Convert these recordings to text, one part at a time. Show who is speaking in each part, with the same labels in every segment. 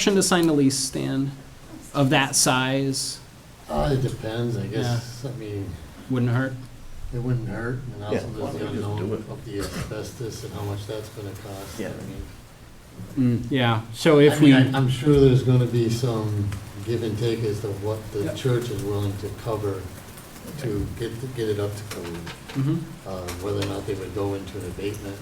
Speaker 1: Motion to sign the lease, Stan, of that size
Speaker 2: Uh, it depends, I guess, I mean,
Speaker 1: wouldn't hurt.
Speaker 2: it wouldn't hurt, and
Speaker 3: Yeah,
Speaker 2: also there's
Speaker 3: why don't
Speaker 2: the
Speaker 3: we just do
Speaker 2: unknown
Speaker 3: it?
Speaker 2: of the asbestos and how much that's gonna cost. I
Speaker 3: Yeah.
Speaker 2: mean-
Speaker 1: Mm, Yeah, so
Speaker 2: I
Speaker 1: if we,
Speaker 2: mean, I- I'm sure there's gonna be some give and take as to what the
Speaker 1: Yeah.
Speaker 2: church is willing to cover to get, get it up to code.
Speaker 1: Mhm.
Speaker 2: uh, whether or not they would go into an abatement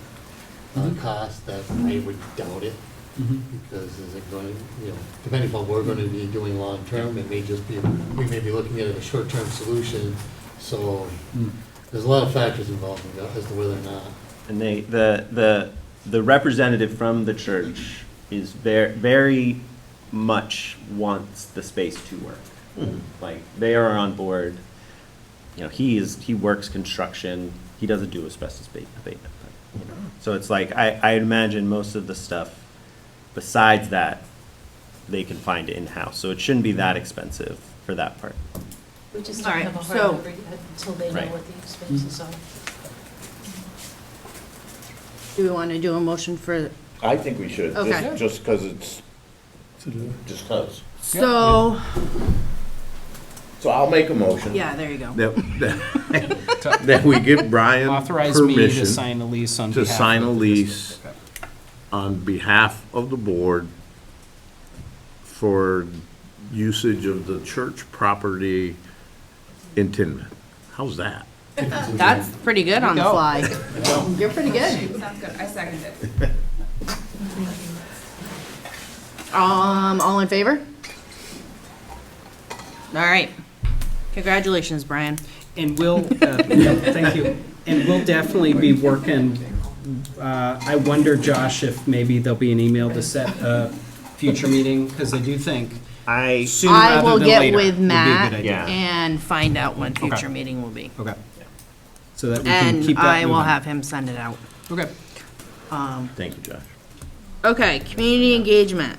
Speaker 2: uh,
Speaker 1: Mhm.
Speaker 2: cost, that I would doubt it,
Speaker 1: Mhm.
Speaker 2: because is it going, you know, depending upon what we're gonna be doing long-term, it may just be, we may be looking at it as a short-term solution, so
Speaker 1: Mm.
Speaker 2: there's a lot of factors involved in that, as to whether or not.
Speaker 3: And they, the, the, the representative from the church is ver- very much wants the space to work. Like, they are on board, you know, he is, he works construction, he doesn't do asbestos abate- abatement. but, you know. So it's like, I, I imagine most of the stuff besides that, they can find in-house, so it shouldn't be that expensive for that part.
Speaker 4: We just
Speaker 5: All
Speaker 4: don't
Speaker 5: right,
Speaker 4: have a
Speaker 5: so-
Speaker 4: hard number yet until they know
Speaker 3: Right.
Speaker 4: what the expenses are.
Speaker 5: Do we want to do a motion for,
Speaker 6: I think we should,
Speaker 5: Okay.
Speaker 6: just, just because it's, just because.
Speaker 5: so,
Speaker 6: So I'll make a motion.
Speaker 5: yeah, there you go.
Speaker 6: That, that- that we give Brian
Speaker 1: authorize me to
Speaker 6: permission
Speaker 1: sign the lease on
Speaker 6: to
Speaker 1: behalf
Speaker 6: sign
Speaker 1: of
Speaker 6: a
Speaker 1: the
Speaker 6: lease
Speaker 1: district.
Speaker 6: on behalf of the board for usage of the church property in Tinman. How's that?
Speaker 5: That's pretty good on the
Speaker 1: Go.
Speaker 5: fly. You're pretty good.
Speaker 7: Sounds good, I second it.
Speaker 5: Um, all in favor? All right. Congratulations, Brian.
Speaker 1: And we'll, uh, yeah, thank you, and we'll definitely be working, uh, I wonder, Josh, if maybe there'll be an email to set a future meeting, because I do think
Speaker 3: I.
Speaker 1: sooner
Speaker 5: I
Speaker 1: rather
Speaker 5: will
Speaker 1: than later.
Speaker 5: get
Speaker 1: would
Speaker 5: with
Speaker 1: be a good
Speaker 5: Matt
Speaker 1: idea.
Speaker 3: Yeah.
Speaker 5: and find out when future
Speaker 1: Okay.
Speaker 5: meeting will be.
Speaker 1: Okay. So that we can
Speaker 5: And
Speaker 1: keep that
Speaker 5: I will
Speaker 1: moving.
Speaker 5: have him send it out.
Speaker 1: Okay.
Speaker 6: Thank you, Josh.
Speaker 5: Okay, community engagement,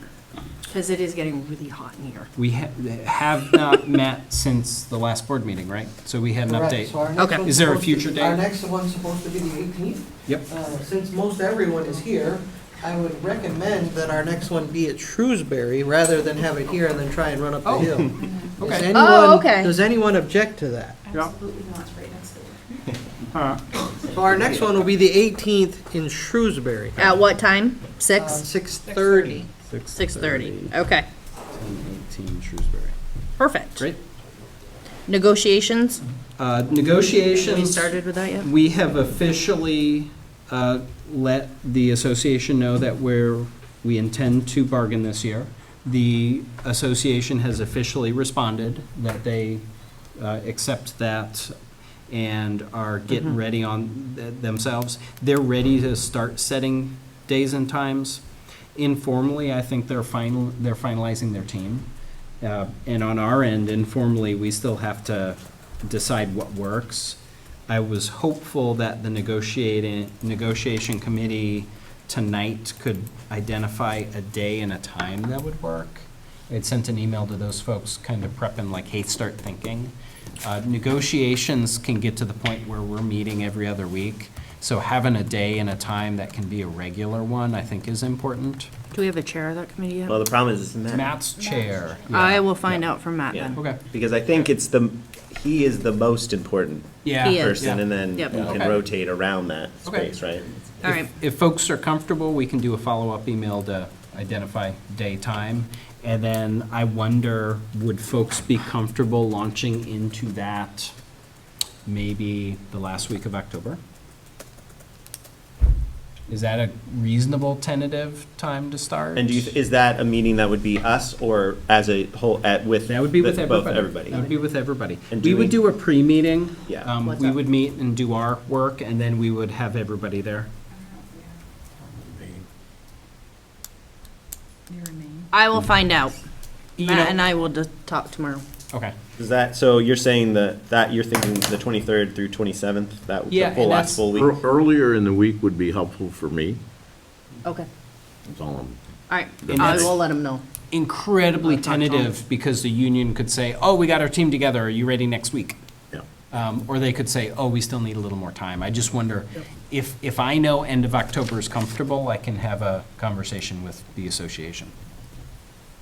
Speaker 5: because it is getting really hot in here.
Speaker 1: We ha- have not met since the last board meeting, right? So we had an
Speaker 8: Correct.
Speaker 1: update.
Speaker 8: So our next
Speaker 5: Okay.
Speaker 8: one's
Speaker 1: Is there a
Speaker 8: supposed to-
Speaker 1: future date?
Speaker 8: Our next one's supposed to be the 18th.
Speaker 1: Yep.
Speaker 8: Uh, Since most everyone is here, I would recommend that our next one be at Shrewsbury rather than have it here and then try and run up the
Speaker 1: Oh.
Speaker 8: hill. Does
Speaker 1: Okay.
Speaker 8: anyone-
Speaker 5: Oh, okay.
Speaker 8: Does anyone object to that?
Speaker 7: Absolutely not, it's right next door.
Speaker 8: So our next one will be the 18th in Shrewsbury,
Speaker 5: At what time?
Speaker 8: uh,
Speaker 5: Six?
Speaker 8: 6:30.
Speaker 5: Six thirty. Okay,
Speaker 1: Eighteen Shrewsbury.
Speaker 5: perfect.
Speaker 1: Great.
Speaker 5: Negotiations?
Speaker 1: Uh,
Speaker 5: We
Speaker 1: Negotiations,
Speaker 5: started with that yet?
Speaker 1: we have officially uh, let the association know that we're, we intend to bargain this year. The association has officially responded that they uh, accept that and are
Speaker 8: Mm-hmm.
Speaker 1: getting ready on th- themselves. They're ready to start setting days and times. Informally, I think they're final, they're finalizing their team. Uh, And on our end, informally, we still have to decide what works. I was hopeful that the negotiating, negotiation committee tonight could identify a day and a time that would work. I had sent an email to those folks, kind of prepping like, hey, start thinking. Uh, Negotiations can get to the point where we're meeting every other week, so having a day and a time that can be a regular one, I think is important.
Speaker 5: Do we have a chair of that committee yet?
Speaker 3: Well, the problem is it's Matt.
Speaker 1: Matt's chair.
Speaker 5: I
Speaker 1: yeah,
Speaker 5: will find
Speaker 1: yeah.
Speaker 5: out from Matt then.
Speaker 1: Okay.
Speaker 3: Because I think it's the, he is the most important
Speaker 1: Yeah.
Speaker 5: He is.
Speaker 3: person, and then you
Speaker 5: Yep.
Speaker 3: can
Speaker 1: Okay.
Speaker 3: rotate around that
Speaker 1: Okay.
Speaker 3: space, right?
Speaker 5: All right,
Speaker 1: If folks are comfortable, we can do a follow-up email to identify day, time. And then I wonder, would folks be comfortable launching into that maybe the last week of October? Is that a reasonable tentative time to start?
Speaker 3: And do you, is that a meeting that would be us or as a whole, at, with?
Speaker 1: That would be with
Speaker 3: both
Speaker 1: everybody. That would be
Speaker 3: everybody?
Speaker 1: with everybody.
Speaker 3: And
Speaker 1: We
Speaker 3: do
Speaker 1: would
Speaker 3: we-
Speaker 1: do a pre-meeting.
Speaker 3: Yeah.
Speaker 1: Um,
Speaker 5: What's
Speaker 1: We
Speaker 5: up?
Speaker 1: would meet and do our work, and then we would have everybody there.
Speaker 7: You remain.
Speaker 5: I will find out.
Speaker 1: You
Speaker 5: Matt
Speaker 1: know-
Speaker 5: and I will just talk tomorrow.
Speaker 1: Okay.
Speaker 3: Is that, so you're saying that, that you're thinking the twenty-third through twenty-seventh, that,
Speaker 1: Yeah,
Speaker 3: the
Speaker 1: and
Speaker 3: whole
Speaker 1: that's-
Speaker 3: last full week?
Speaker 6: Ear- Earlier in the week would be helpful for me,
Speaker 5: Okay,
Speaker 6: that's all I'm
Speaker 5: all right.
Speaker 1: And
Speaker 5: I
Speaker 1: that's-
Speaker 5: will let him know.
Speaker 1: incredibly
Speaker 5: I'll talk to 'em.
Speaker 1: tentative because the union could say, oh, we got our team together, are you ready next week?
Speaker 6: Yeah.
Speaker 1: Um, Or they could say, oh, we still need a little more time. I just wonder, if, if I know end of October is comfortable, I can have a conversation with the association.